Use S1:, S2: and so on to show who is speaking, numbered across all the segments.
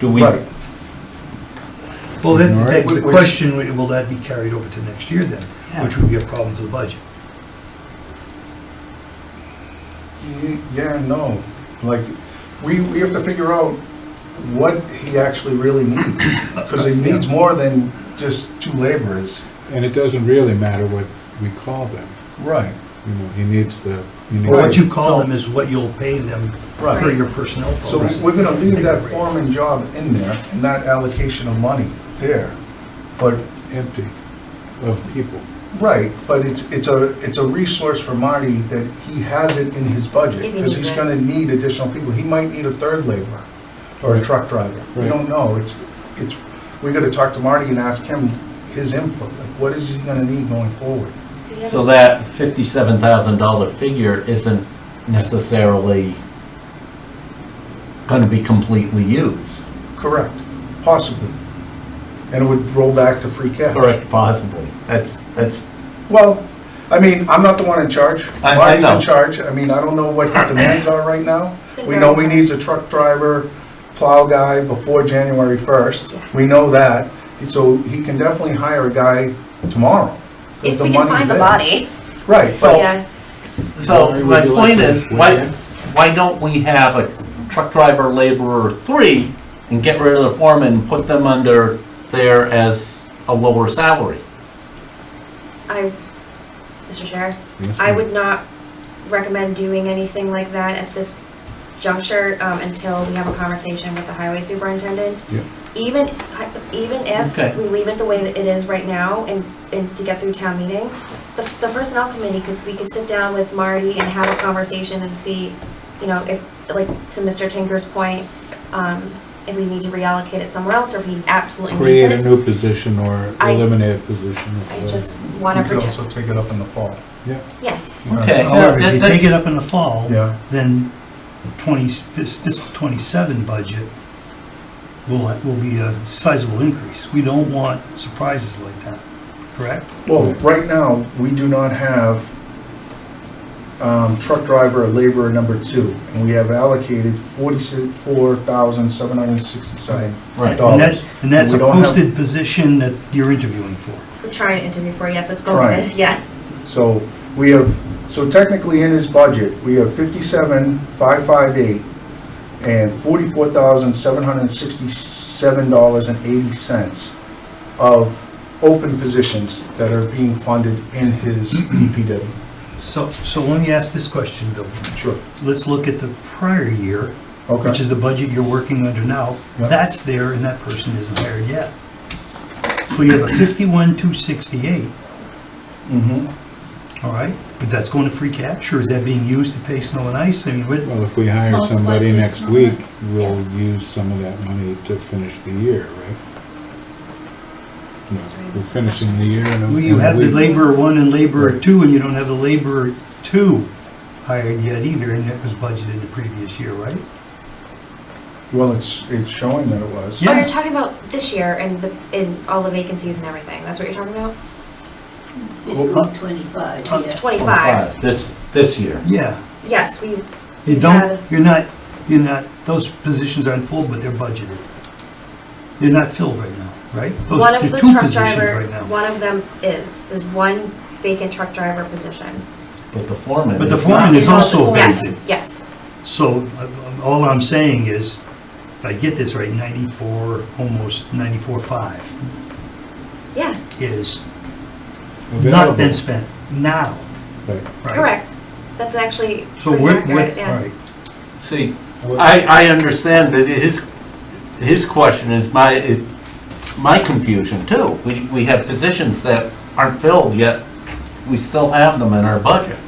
S1: Do we,
S2: Right.
S3: Well, then,
S4: All right.
S3: that's the
S2: Which-
S3: question, will that be carried over to next year then? Which would be a problem for the budget.
S2: Ye- Yeah, and no, like, we, we have to figure out what he actually really needs, because he needs more than just two laborers.
S4: And it doesn't really matter what we call them,
S2: Right.
S4: you know, he needs the, he
S3: Or what
S4: needs,
S3: you call them is what you'll pay them per
S2: Right.
S3: your personnel
S2: So
S3: policy.
S2: we're gonna leave that foreman job in there, and that allocation of money there, but,
S4: empty of people.
S2: right, but it's, it's a, it's a resource for Marty that he has it in his budget,
S5: If he
S2: because
S5: needs
S2: he's
S5: it.
S2: gonna need additional people, he might need a third laborer, or a truck driver, we
S4: Right.
S2: don't know, it's, it's, we gotta talk to Marty and ask him his input, like, what is he gonna need going forward?
S1: so that fifty-seven thousand dollar figure isn't necessarily gonna be completely used,
S2: Correct, possibly, and it would roll back to free cash.
S1: correct, possibly, that's, that's,
S2: Well, I mean, I'm not the one in charge.
S1: I- I
S2: Marty's
S1: know.
S2: in charge. I mean, I don't know what his demands are right now.
S5: It's been
S2: We know
S5: very
S2: we
S5: hard.
S2: needs a truck driver, plow guy before January 1st. We know that. So he can definitely hire a guy tomorrow. 'cause
S5: If
S2: the
S5: we can
S2: money's
S5: find the
S2: there.
S5: body,
S2: Right, but
S5: yeah,
S1: so my point is, why, why don't we have a truck driver laborer three and get rid of the foreman and put them under there as a lower salary?
S5: I, Mr. Chair,
S4: Yes,
S5: I
S4: ma'am.
S5: would not recommend doing anything like that at this juncture, um, until we have a conversation with the highway superintendent.
S4: Yeah.
S5: Even, hy- even
S1: Okay.
S5: if we leave it the way that it is right now and, and to get through town meeting, the, the personnel committee could, we could sit down with Marty and have a conversation and see, you know, if, like, to Mr. Tinker's point, um, if we need to reallocate it somewhere else or if he absolutely needs it.
S4: Create a new position or
S5: I-
S4: eliminate a position. or
S5: I
S4: whatever.
S5: just
S2: we
S5: wanna
S2: could
S5: protect,
S2: also take it up in the fall.
S4: Yeah,
S5: yes,
S1: Okay.
S3: However,
S1: Yeah,
S3: if you
S1: that-
S3: take it
S1: that's-
S3: up in the fall,
S2: Yeah.
S3: then 20, fis- fiscal 27 budget will, will be a sizable increase. We don't want surprises like that, correct?
S2: Well, right now, we do not have um, truck driver or laborer number two. And we have allocated $44,767.
S1: Right.
S3: And that's, and that's a
S2: We don't have-
S3: posted position that you're interviewing for.
S5: we're trying to interview for, yes, it's
S2: Trying.
S5: posted, yeah.
S2: So we have, so technically in his budget, we have fifty-seven, five, five, eight, and forty-four thousand, seven hundred and sixty-seven dollars and eighty cents of open positions that are being funded in his DPW.
S3: So, so let me ask this question, Bill.
S2: Sure.
S3: Let's look at the prior year, which
S2: Okay.
S3: is the budget you're working under now.
S2: Yeah.
S3: That's there and that person isn't hired yet. So you have a fifty-one, two sixty-eight,
S2: Mhm.
S3: all right? But that's going to free cash or is that being used to pay snow and ice? I mean, what,
S4: well, if we hire
S6: Most
S4: somebody
S6: likely
S4: next
S6: small
S4: week,
S6: ones.
S4: we'll
S5: Yes.
S4: use some of that money to finish the year, right? No,
S5: That's right.
S4: We're finishing the year in a in a
S3: well,
S4: week.
S3: you have the laborer one and laborer two and you don't have the laborer two hired yet either and it was budgeted the previous year, right?
S2: Well, it's, it's showing that it was.
S3: Yeah.
S5: Oh, you're talking about this year and the, and all the vacancies and everything, that's what you're talking about?
S6: Fiscal twenty-five,
S3: Uh,
S6: yeah.
S5: Twenty-five,
S1: This, this year.
S3: Yeah.
S5: yes, we,
S3: You
S5: Yeah.
S3: don't, you're not, you're not, those positions aren't full, but they're budgeted. They're not filled right now, right? Those
S5: one of
S3: they're
S5: the
S3: two
S5: truck
S3: positions
S5: driver,
S3: right now.
S5: one of them is, is one vacant truck driver position.
S1: But the foreman
S3: But the
S1: is
S3: foreman
S1: not.
S3: is also
S5: Yes,
S3: vacant.
S5: yes,
S3: So uh, all I'm saying is, if I get this right, 94, almost 94.5
S5: yeah,
S3: is not been spent now,
S4: Available.
S3: right?
S5: correct, that's actually
S3: So
S5: pretty
S3: we're,
S5: accurate,
S3: we're,
S5: yeah.
S3: all right.
S1: See,
S4: Right.
S1: I, I understand that his, his question is my, is my confusion too. We, we have positions that aren't filled yet, we still have them in our budget.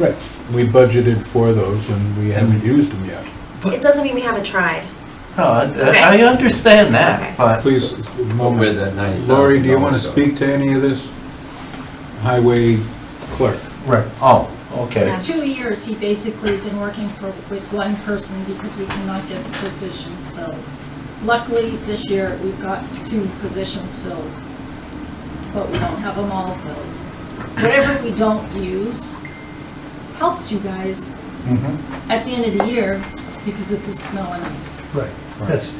S4: Right, we budgeted for those and we haven't used them yet.
S5: It doesn't mean we haven't tried,
S1: No, I, I understand
S5: Okay.
S1: that, but
S4: Please,
S7: Where that ninety thousand.
S4: Lori, do you want to speak to any of this? Highway clerk.
S2: Right.
S1: Oh, okay.
S5: Yeah.
S6: Two years, he basically been working for, with one person because we cannot get the positions filled. Luckily, this year, we've got two positions filled, but we don't have them all filled. Whatever we don't use helps you guys
S2: Mhm.
S6: at the end of the year because of the snow and ice.
S3: Right, that's,